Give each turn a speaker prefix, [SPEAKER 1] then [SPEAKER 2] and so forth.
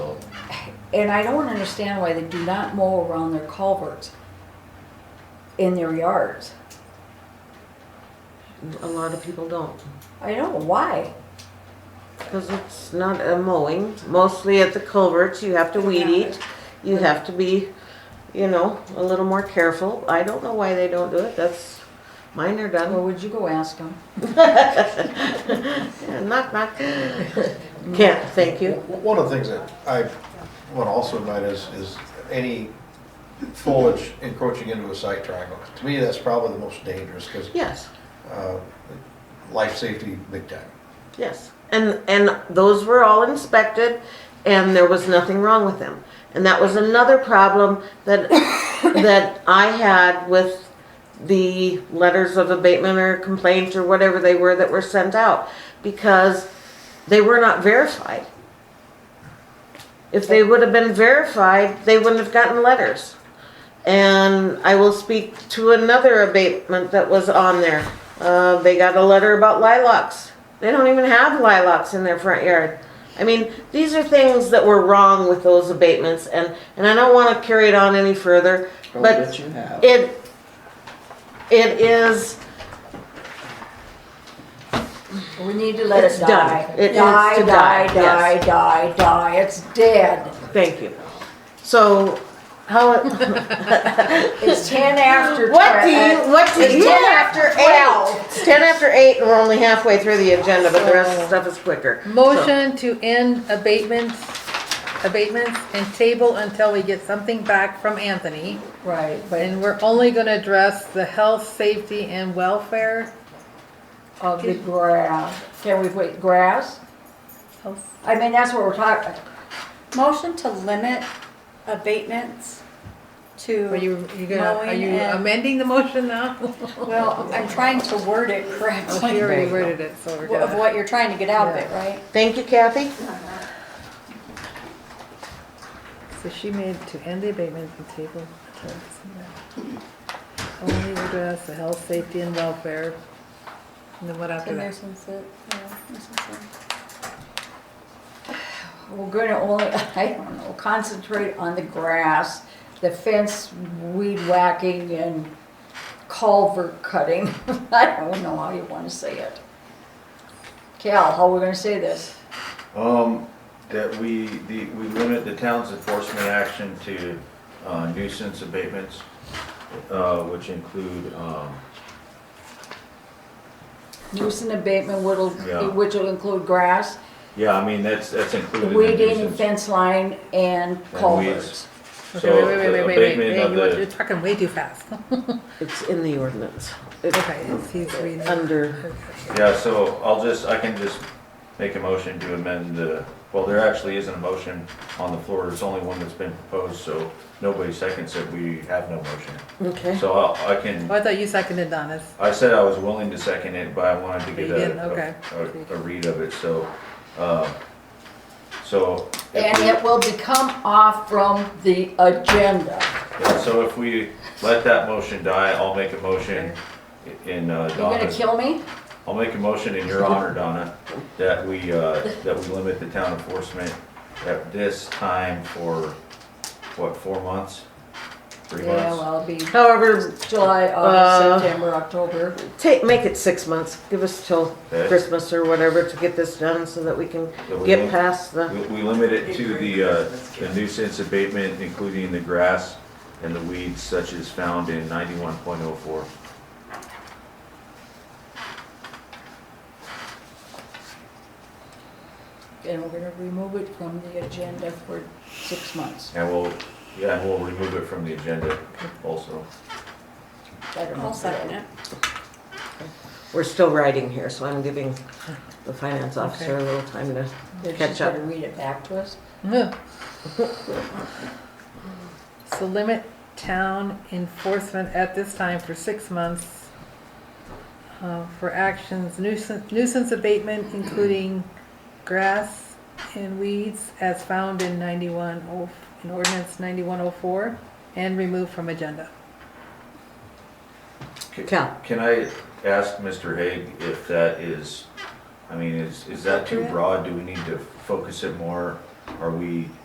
[SPEAKER 1] And I don't understand why they do not mow around their culverts in their yards.
[SPEAKER 2] A lot of people don't,
[SPEAKER 1] I don't know why.
[SPEAKER 2] because it's not a mowing, mostly at the culverts, you have to weed eat, you have to be, you know, a little more careful, I don't know why they don't do it, that's, mine are
[SPEAKER 1] Well,
[SPEAKER 2] done.
[SPEAKER 1] would you go ask them?
[SPEAKER 2] Knock, knock. Can't, thank you.
[SPEAKER 3] W- One of the things that I want to also invite is, is any foliage encroaching into a site triangle. To me, that's probably the most dangerous, because
[SPEAKER 2] Yes,
[SPEAKER 3] life safety, big time.
[SPEAKER 2] yes, and, and those were all inspected, and there was nothing wrong with them. And that was another problem that, that I had with the letters of abatement or complaint or whatever they were that were sent out, because they were not verified. If they would have been verified, they wouldn't have gotten letters. And I will speak to another abatement that was on there. Uh, they got a letter about lilacs. They don't even have lilacs in their front yard. I mean, these are things that were wrong with those abatements and, and I don't wanna carry it on any further,
[SPEAKER 4] Oh,
[SPEAKER 2] but
[SPEAKER 4] you have.
[SPEAKER 2] it, it is,
[SPEAKER 1] We need to let
[SPEAKER 2] It's
[SPEAKER 1] it
[SPEAKER 2] done.
[SPEAKER 1] die.
[SPEAKER 2] It needs
[SPEAKER 1] Die,
[SPEAKER 2] to
[SPEAKER 1] die,
[SPEAKER 2] die,
[SPEAKER 1] die,
[SPEAKER 2] yes.
[SPEAKER 1] die, die. It's dead.
[SPEAKER 2] thank you. So, how,
[SPEAKER 1] It's ten after.
[SPEAKER 2] what
[SPEAKER 1] twe-
[SPEAKER 2] do you,
[SPEAKER 1] uh,
[SPEAKER 2] what do you?
[SPEAKER 1] It's ten after twelve.
[SPEAKER 2] It's ten after eight and we're only halfway through the agenda, but the rest of the stuff is quicker.
[SPEAKER 5] Motion to end abatements, abatements and table until we get something back from Anthony.
[SPEAKER 1] Right, but
[SPEAKER 5] And we're only gonna address the health, safety and welfare.
[SPEAKER 1] of the grass, can we put grass?
[SPEAKER 5] Health-
[SPEAKER 1] I mean, that's what we're talking,
[SPEAKER 6] Motion to limit abatements
[SPEAKER 5] Are
[SPEAKER 6] to,
[SPEAKER 5] you, you gonna, are
[SPEAKER 6] Mowing
[SPEAKER 5] you
[SPEAKER 6] and-
[SPEAKER 5] amending the motion now?
[SPEAKER 6] well, I'm trying to word it
[SPEAKER 5] Oh, She
[SPEAKER 6] correctly
[SPEAKER 5] already worded it, so we're
[SPEAKER 6] of
[SPEAKER 5] good.
[SPEAKER 6] what you're trying to get out of it, right?
[SPEAKER 2] Thank you, Kathy.
[SPEAKER 5] So she made to end the abatements and table. until Only address the health, safety and welfare. And then what after
[SPEAKER 6] The
[SPEAKER 5] that?
[SPEAKER 6] nuisance, yeah, nuisance.
[SPEAKER 1] we're gonna only, I don't know, concentrate on the grass, the fence weed whacking and culvert cutting. I don't know how you wanna say it. Cal, how are we gonna say this?
[SPEAKER 7] Um, that we, the, we limit the town's enforcement action to uh, nuisance abatements, uh, which include, um,
[SPEAKER 1] Nuisance abatement,
[SPEAKER 7] Yeah.
[SPEAKER 1] which which will include grass,
[SPEAKER 7] yeah, I mean, that's, that's included in
[SPEAKER 1] weeding,
[SPEAKER 7] nuisance.
[SPEAKER 1] fence line, and culverts.
[SPEAKER 5] Okay,
[SPEAKER 7] So
[SPEAKER 5] wait, wait,
[SPEAKER 7] the
[SPEAKER 5] wait, wait, wait,
[SPEAKER 7] abatement
[SPEAKER 5] wait,
[SPEAKER 7] of
[SPEAKER 5] you want-
[SPEAKER 7] the-
[SPEAKER 5] You're talking way too fast.
[SPEAKER 2] It's in the ordinance. It's
[SPEAKER 5] Okay, it's- he's reading.
[SPEAKER 2] under,
[SPEAKER 7] Yeah, so I'll just, I can just make a motion to amend the, well, there actually isn't a motion on the floor, there's only one that's been proposed, so nobody seconds it, we have no motion.
[SPEAKER 2] okay.
[SPEAKER 7] So I'll- I can,
[SPEAKER 5] Oh, I thought you seconded Donna's.
[SPEAKER 7] I said I was willing to second it, but I wanted to
[SPEAKER 5] But Oh, you
[SPEAKER 7] get
[SPEAKER 5] didn't,
[SPEAKER 7] a,
[SPEAKER 5] okay.
[SPEAKER 7] a, a read of it, so, uh, so. if
[SPEAKER 1] And
[SPEAKER 7] we-
[SPEAKER 1] it will become off from the agenda.
[SPEAKER 7] Yeah, so if we let that motion die, I'll make a motion in uh,
[SPEAKER 1] You're gonna
[SPEAKER 7] Donna's,
[SPEAKER 1] kill me?
[SPEAKER 7] I'll make a motion in your honor, Donna, that we, uh, that we limit the town enforcement at this time for, what, four months? Three
[SPEAKER 1] Yeah,
[SPEAKER 7] months?
[SPEAKER 1] well, it'll be
[SPEAKER 2] However,
[SPEAKER 1] July,
[SPEAKER 2] Uh,
[SPEAKER 1] August, September, October.
[SPEAKER 2] take, make it six months, give us till
[SPEAKER 7] Okay.
[SPEAKER 2] Christmas or whatever to get this done so that we can
[SPEAKER 7] That we
[SPEAKER 2] get
[SPEAKER 7] lim-
[SPEAKER 2] past the,
[SPEAKER 7] We we limit it to the uh, the nuisance abatement, including the grass and the weeds such as found in ninety-one point oh four.
[SPEAKER 1] And we're gonna remove it from the agenda for six months.
[SPEAKER 7] And we'll, yeah, and we'll remove it from the agenda also.
[SPEAKER 1] I don't know.
[SPEAKER 6] I'll second it.
[SPEAKER 2] we're still writing here, so I'm giving the finance officer a little time to,
[SPEAKER 1] They're just
[SPEAKER 2] Catch up.
[SPEAKER 1] gonna read it back to us.
[SPEAKER 5] Ugh. So limit town enforcement at this time for six months uh, for actions nuisance, nuisance abatement, including grass and weeds as found in 91, oh- in ordinance 9104 and removed from agenda.
[SPEAKER 7] Ca-
[SPEAKER 2] Cal.
[SPEAKER 7] Can I ask Mr. Haig if that is, I mean, is, is that too broad? Do we need to focus it more? Are we